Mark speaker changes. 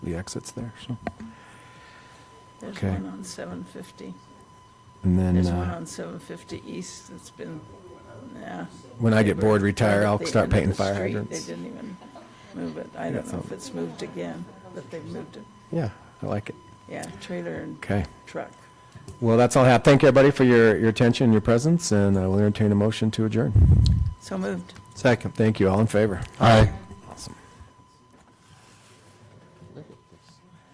Speaker 1: the exits there, so.
Speaker 2: There's
Speaker 1: Okay.
Speaker 2: one on 750.
Speaker 1: And then,
Speaker 2: There's one
Speaker 1: uh,
Speaker 2: on 750 East that's been, yeah.
Speaker 1: when I
Speaker 2: They
Speaker 1: get
Speaker 2: were
Speaker 1: bored,
Speaker 2: right
Speaker 1: retire,
Speaker 2: at
Speaker 1: I'll
Speaker 2: the
Speaker 1: start
Speaker 2: end of
Speaker 1: painting
Speaker 2: the
Speaker 1: fire
Speaker 2: street.
Speaker 1: hydrants.
Speaker 2: They didn't even move it. I
Speaker 1: Yeah,
Speaker 2: don't know
Speaker 1: so-
Speaker 2: if it's moved again, but they've moved it.
Speaker 1: Yeah, I like it.
Speaker 2: Yeah, trailer and
Speaker 1: Okay.
Speaker 2: truck.
Speaker 1: Well, that's all I have. Thank you, everybody, for your, your attention and your presence, and I will entertain a motion to adjourn.
Speaker 2: So moved.
Speaker 1: Second. Thank you. All in favor?
Speaker 3: Aye.